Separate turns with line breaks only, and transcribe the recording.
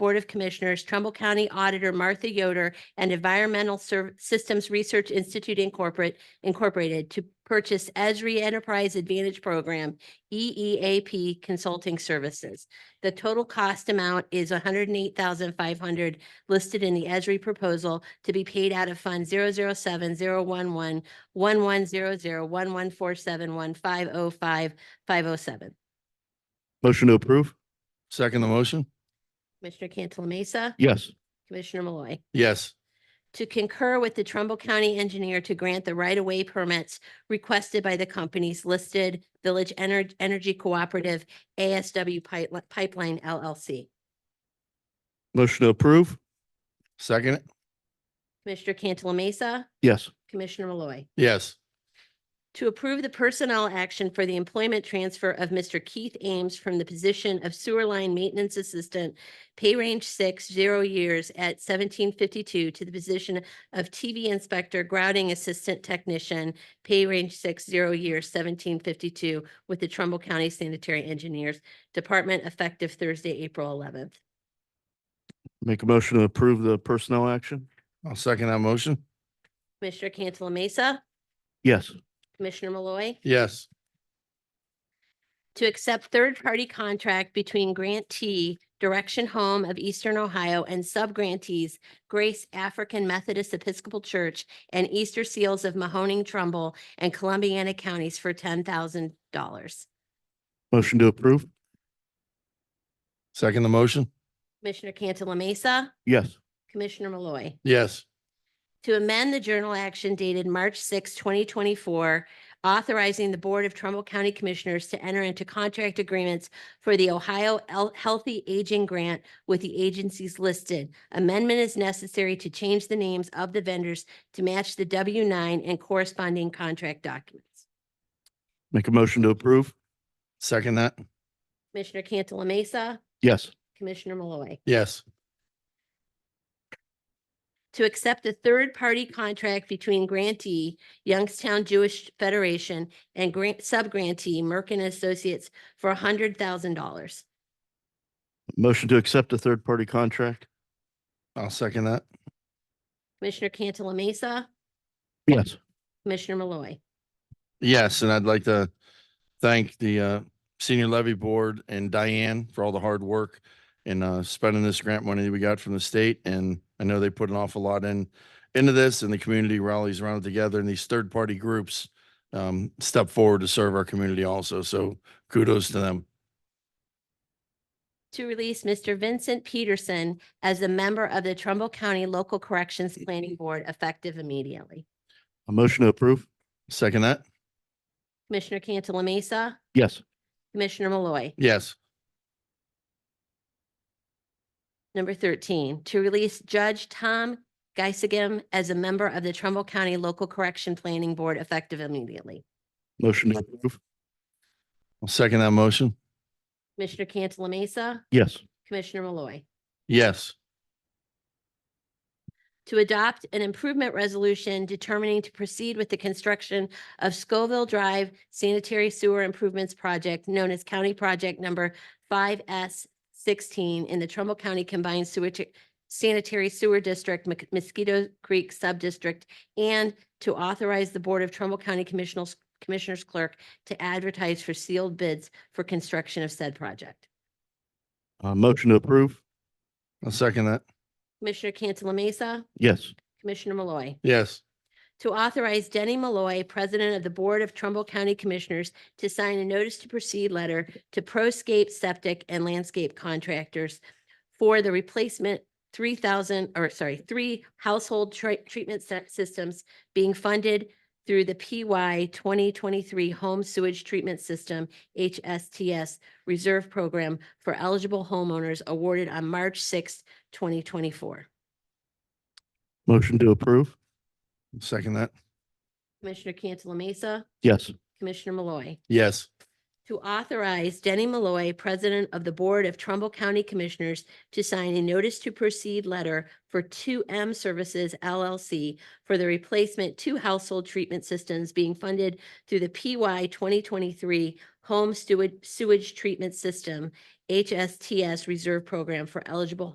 Board of Commissioners, Trumbull County Auditor Martha Yoder, and Environmental Serv- Systems Research Institute Incorporate- Incorporated to purchase Esri Enterprise Advantage Program, E EEAP Consulting Services. The total cost amount is one hundred and eight thousand five hundred listed in the Esri proposal to be paid out of Fund zero zero seven zero one one one one zero zero one one four seven one five oh five five oh seven.
Motion to approve. Second the motion?
Commissioner Cantala Mesa,
Yes.
Commissioner Malloy.
Yes.
to concur with the Trumbull County engineer to grant the right-of-way permits requested by the companies listed Village Ener- Energy Cooperative ASW Pipe- Pipeline LLC.
Motion to approve. Second it?
Commissioner Cantala Mesa,
Yes.
Commissioner Malloy.
Yes.
To approve the personnel action for the employment transfer of Mr. Keith Ames from the position of sewer line maintenance assistant, pay range six, zero years at seventeen fifty-two to the position of TV inspector, grouting assistant technician, pay range six, zero years, seventeen fifty-two with the Trumbull County Sanitary Engineers Department effective Thursday, April eleventh.
Make a motion to approve the personnel action? I'll second that motion.
Commissioner Cantala Mesa,
Yes.
Commissioner Malloy.
Yes.
to accept third-party contract between grantee Direction Home of Eastern Ohio and subgrantees Grace African Methodist Episcopal Church and Easter Seals of Mahoning Trumbull and Columbiana Counties for ten thousand dollars.
Motion to approve. Second the motion?
Commissioner Cantala Mesa,
Yes.
Commissioner Malloy.
Yes.
to amend the journal action dated March 6, 2024, authorizing the Board of Trumbull County Commissioners to enter into contract agreements for the Ohio El- Healthy Aging Grant with the agencies listed. Amendment is necessary to change the names of the vendors to match the W-9 and corresponding contract documents.
Make a motion to approve. Second that?
Commissioner Cantala Mesa,
Yes.
Commissioner Malloy.
Yes.
to accept a third-party contract between grantee Youngstown Jewish Federation and grant, sub-grantee Merkin and Associates for hundred thousand dollars.
Motion to accept a third-party contract? I'll second that.
Commissioner Cantala Mesa,
Yes.
Commissioner Malloy.
Yes, and I'd like to thank the uh, Senior Levy Board and Diane for all the hard work in uh, spending this grant money that we got from the state. And I know they put an awful lot in, into this and the community rallies around it together and these third-party groups um, step forward to serve our community also. So kudos to them.
To release Mr. Vincent Peterson as a member of the Trumbull County Local Corrections Planning Board effective immediately.
A motion to approve. Second that?
Commissioner Cantala Mesa,
Yes.
Commissioner Malloy.
Yes.
Number thirteen, to release Judge Tom Geisigem as a member of the Trumbull County Local Correction Planning Board effective immediately.
Motion to approve. I'll second that motion.
Commissioner Cantala Mesa,
Yes.
Commissioner Malloy.
Yes.
To adopt an improvement resolution determining to proceed with the construction of Scoville Drive Sanitary Sewer Improvements Project known as County Project Number five S sixteen in the Trumbull County Combined Sewer Sanitary Sewer District, Mc- Mosquito Creek Subdistrict, and to authorize the Board of Trumbull County Commissioners, Commissioners Clerk to advertise for sealed bids for construction of said project.
A motion to approve. I'll second that.
Commissioner Cantala Mesa,
Yes.
Commissioner Malloy.
Yes.
to authorize Denny Malloy, President of the Board of Trumbull County Commissioners, to sign a notice to proceed letter to Proscape Septic and Landscape Contractors for the replacement three thousand, or sorry, three household tre- treatment se- systems being funded through the PY twenty twenty-three Home Sewage Treatment System, HSTS Reserve Program for eligible homeowners awarded on March sixth, twenty twenty-four.
Motion to approve. Second that.
Commissioner Cantala Mesa,
Yes.
Commissioner Malloy.
Yes.
to authorize Denny Malloy, President of the Board of Trumbull County Commissioners, to sign a notice to proceed letter for 2M Services LLC for the replacement two household treatment systems being funded through the PY 2023 Home Sewage- Sewage Treatment System, HSTS Reserve Program for eligible